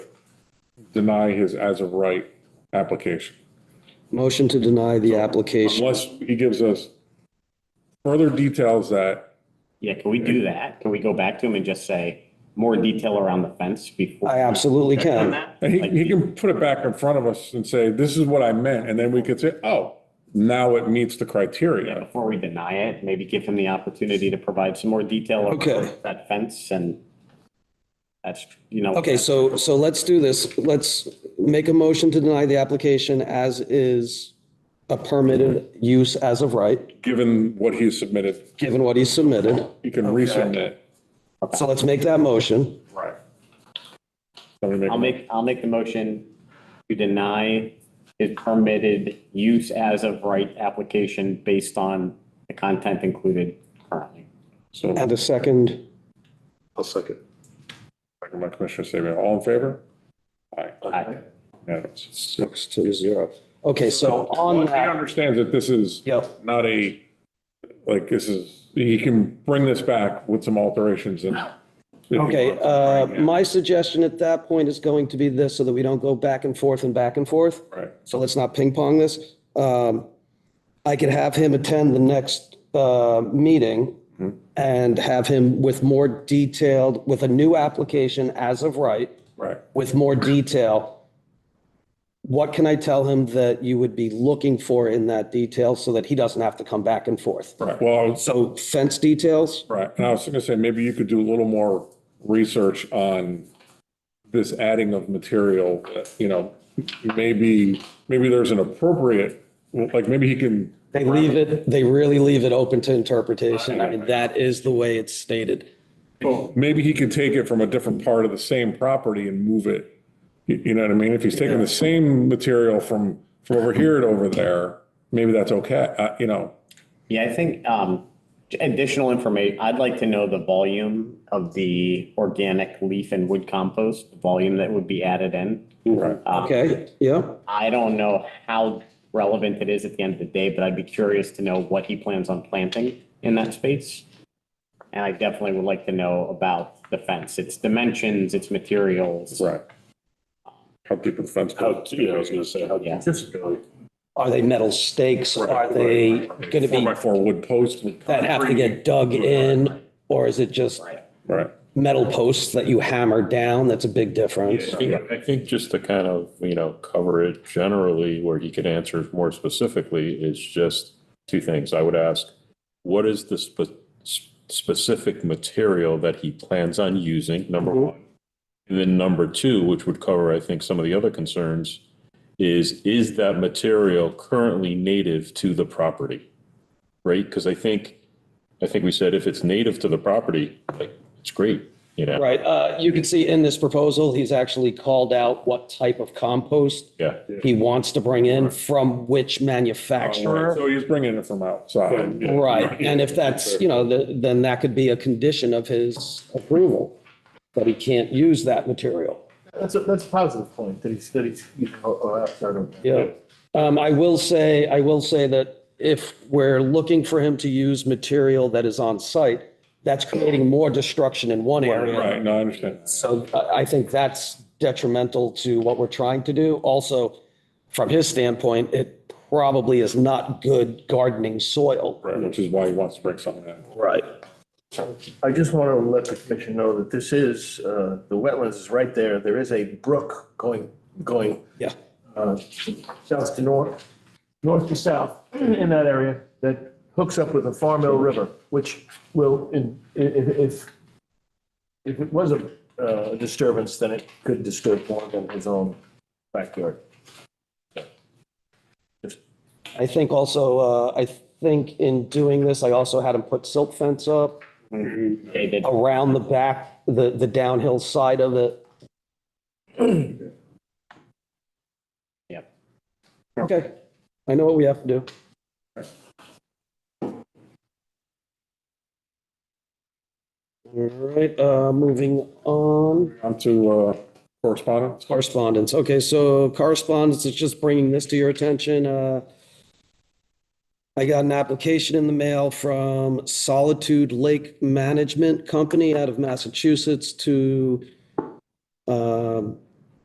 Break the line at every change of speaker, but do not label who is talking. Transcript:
deny his as of right application.
Motion to deny the application.
Unless he gives us further details that,
Yeah, can we do that? Can we go back to him and just say more detail around the fence before?
I absolutely
On
can.
that?
and he,
Like,
he can put it back in front of us and say, this is what I meant, and then we could say, oh, now it meets the
yeah,
criteria.
Before we deny it, maybe give him the opportunity to provide some more detail. around
Okay.
That fence and that's, you know.
Okay, so, so let's do this. Let's make a motion to deny the application as is a permitted use as of right,
Given what he submitted,
given what he submitted.
he can resubmit.
So let's make that motion.
Right.
I'll make, I'll make the motion to deny his permitted use as of right application based on the content included currently.
So,
And a second,
I'll second.
second by Commissioner Sabia, all in favor? Aye.
Aye.
Unanimous.
six to zero. Okay, so on
He
that,
understands that this is
Yep.
not a, like, this is, he can bring this back with some alterations and.
okay, uh, my suggestion at that point is going to be this, so that we don't go back and forth and back and forth.
Right.
so let's not ping pong this. Um, I could have him attend the next uh, meeting and have him with more detailed, with a new application as of right,
Right,
with more detail. What can I tell him that you would be looking for in that detail so that he doesn't have to come back and forth?
right. Well, I was-
So fence details?
right. And I was gonna say, maybe you could do a little more research on this adding of material, you know, maybe, maybe there's an appropriate, like, maybe he can,
They leave it, they really leave it open to interpretation. I mean, that is the way it's stated.
maybe he could take it from a different part of the same property and move it. You you know what I mean? If he's taking the same material from, from over here to over there, maybe that's okay, uh, you know.
Yeah, I think um, additional information, I'd like to know the volume of the organic leaf and wood compost, the volume that would be added in.
Right.
Um,
Okay, yeah,
I don't know how relevant it is at the end of the day, but I'd be curious to know what he plans on planting in that space. And I definitely would like to know about the fence, its dimensions, its materials.
Right. How deep are the fence?
How, yeah, I was gonna say, how,
Yeah.
this is really,
are they metal stakes? Are they going to
Four
be
by four wood posts. with
that have to get dug in, or is it just
Right,
metal posts that you hammer down? That's a big difference.
I think- I think just to kind of, you know, cover it generally where he could answer more specifically is just two things. I would ask, what is the spe- s- specific material that he plans on using, number one? And then number two, which would cover, I think, some of the other concerns, is, is that material currently native to the property? Right? Because I think, I think we said if it's native to the property, like, it's great, you know?
Right, uh, you can see in this proposal, he's actually called out what type of compost
Yeah.
he wants to bring in from which manufacturer.
so he's bringing it from outside.
Right, and if that's, you know, the- then that could be a condition of his approval, that he can't use that material.
That's a, that's a positive point, that he's, that he's, you know, oh, I'm sorry.
Yeah. Um, I will say, I will say that if we're looking for him to use material that is on site, that's creating more destruction in one area.
Right, no, I understand.
So I, I think that's detrimental to what we're trying to do. Also, from his standpoint, it probably is not good gardening soil.
Right, which is why he wants to bring something in.
Right.
I just want to let the commission know that this is, uh, the wetlands is right there. There is a brook going, going,
Yeah.
uh, south to north, north to south in that area that hooks up with the Farm Mill River, which will, in, if, if, if it was a, uh, disturbance, then it could disturb more than his own backyard.
I think also, uh, I think in doing this, I also had him put silt fence up
They did-
around the back, the, the downhill side of it.
Yep.
Okay, I know what we have to do. All right, uh, moving on,
On to uh, correspondence.
correspondence. Okay, so correspondence is just bringing this to your attention. Uh, I got an application in the mail from Solitude Lake Management Company out of Massachusetts to um,